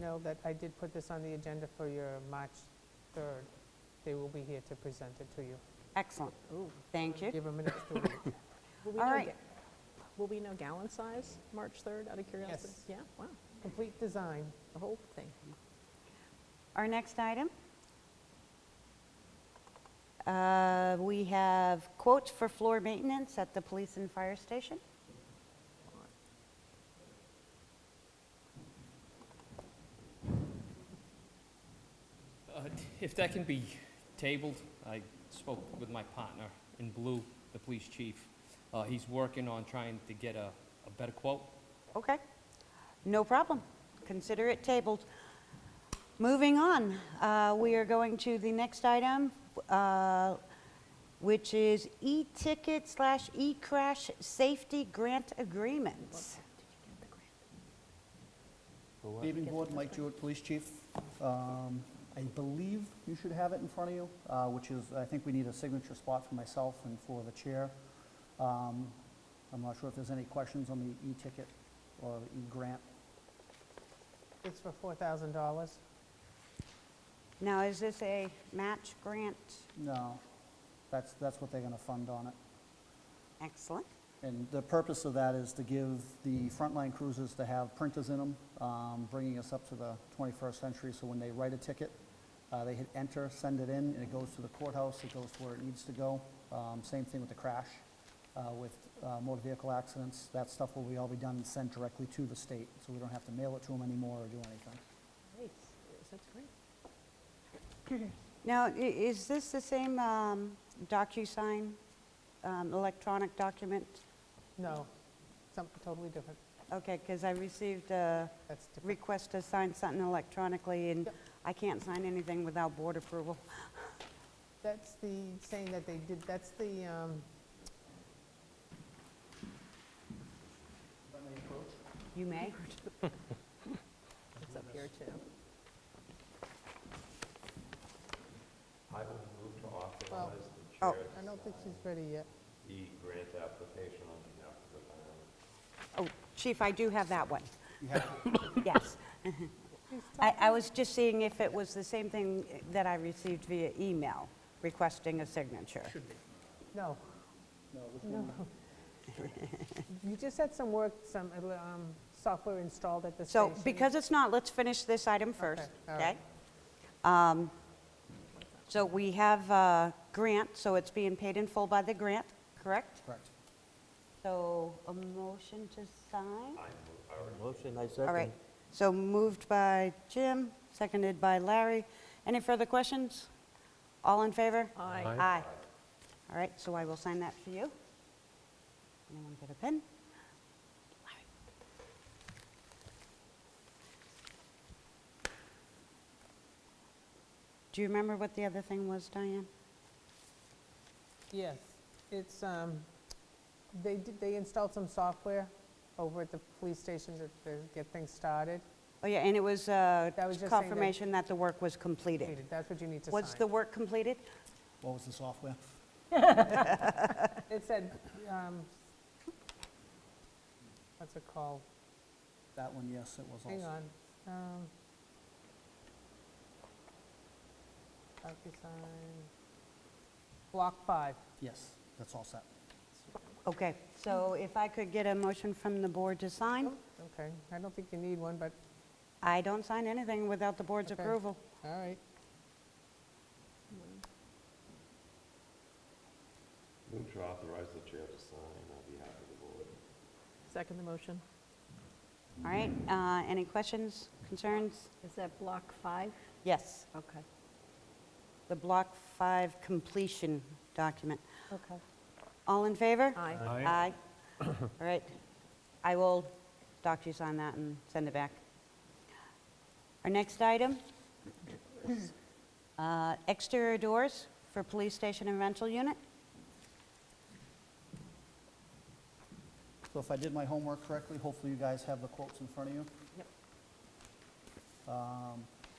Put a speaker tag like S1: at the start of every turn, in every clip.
S1: know that I did put this on the agenda for your March 3rd. They will be here to present it to you.
S2: Excellent. Thank you.
S1: Give them an extra week.
S3: Will we
S2: All
S3: know
S2: right.
S3: ga- Will we know gallon size, March 3rd, out of curiosity?
S1: Yes.
S3: Yeah, wow,
S1: Complete design.
S3: the whole thing.
S2: Our next item. Uh, We have quotes for floor maintenance at the police and fire station.
S4: Uh, If that can be tabled, I spoke with my partner in blue, the police chief. Uh, He's working on trying to get a a better quote.
S2: Okay, no problem. Consider it tabled. Moving on, uh, we are going to the next item, uh, which is e-ticket slash e-crash safety grant agreements.
S5: Gaming board, Mike Jewett, Police Chief. Um, I believe you should have it in front of you, uh, which is, I think we need a signature spot for myself and for the chair. Um, I'm not sure if there's any questions on the e-ticket or the e-grant.
S1: It's for $4,000.
S2: Now, is this a match grant?
S5: No, that's, that's what they're going to fund on it.
S2: Excellent.
S5: And the purpose of that is to give the frontline cruisers to have printers in them, um, bringing us up to the 21st century, so when they write a ticket, uh, they hit enter, send it in, and it goes to the courthouse, it goes to where it needs to go. Um, Same thing with the crash, uh, with uh, motor vehicle accidents, that stuff will be all be done and sent directly to the state, so we don't have to mail it to them anymore or do anything.
S3: Nice, that's great.
S2: Now, i- is this the same um, DocuSign, um, electronic document?
S1: No, something totally different.
S2: Okay, because I received a
S1: That's different.
S2: request to sign something electronically, and
S1: Yep.
S2: I can't sign anything without board approval.
S1: That's the saying that they did, that's the, um,
S2: You may.
S3: It's up here, too.
S6: I will move to
S1: Well-
S6: authorize the
S2: Oh.
S6: chair
S1: I don't think
S6: to
S1: she's ready yet.
S6: sign the grant application on behalf of the town.
S2: Oh, Chief, I do have that one.
S5: You have
S2: Yes. I I was just seeing if it was the same thing that I received via email requesting a signature.
S1: No.
S5: No, which one?
S1: You just had some work, some um, software installed at the
S2: So
S1: station.
S2: because it's not, let's finish this item first,
S1: all
S2: okay?
S1: right.
S2: Um, So we have a grant, so it's being paid in full by the grant, correct?
S5: Correct.
S2: So a motion to sign?
S7: Motion, I
S2: All right,
S7: second.
S2: so moved by Jim, seconded by Larry. Any further questions? All in favor?
S3: Aye.
S7: Aye.
S2: Aye. All right, so I will sign that for you. Anyone get a pen? Do you remember what the other thing was, Diane?
S1: Yes, it's, um, they did, they installed some software over at the police station to to get things started.
S2: Oh, yeah, and it was uh,
S1: That was just saying that-
S2: confirmation that the work was completed.
S1: That's what you need to sign.
S2: Was the work completed?
S5: What was the software?
S1: It said, um, what's it called?
S5: That one, yes, it was also.
S1: Hang on. um, DocuSign, Block 5.
S5: Yes, that's all set.
S2: Okay, so if I could get a motion from the board to
S1: Oh.
S2: sign?
S1: Okay, I don't think you need one, but,
S2: I don't sign anything without the board's
S1: Okay.
S2: approval.
S1: all right.
S6: Move to authorize the chair to sign on behalf of the board.
S3: Second the motion.
S2: All right, uh, any questions, concerns?
S8: Is that block five?
S2: Yes,
S8: Okay.
S2: the Block 5 completion document.
S8: Okay.
S2: All in favor?
S3: Aye.
S2: Aye. All right, I will docu-sign that and send it back. Our next item, uh, exterior doors for police station and rental unit.
S5: So if I did my homework correctly, hopefully you guys have the quotes in front of you. Yep.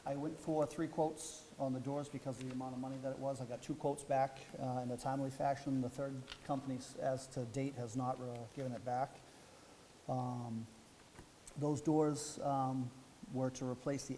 S5: I went for three quotes on the doors because of the amount of money that it was. I got two quotes back uh, in a timely fashion. The third company, s- as to date, has not uh, given it back. Um, Those doors um, were to replace the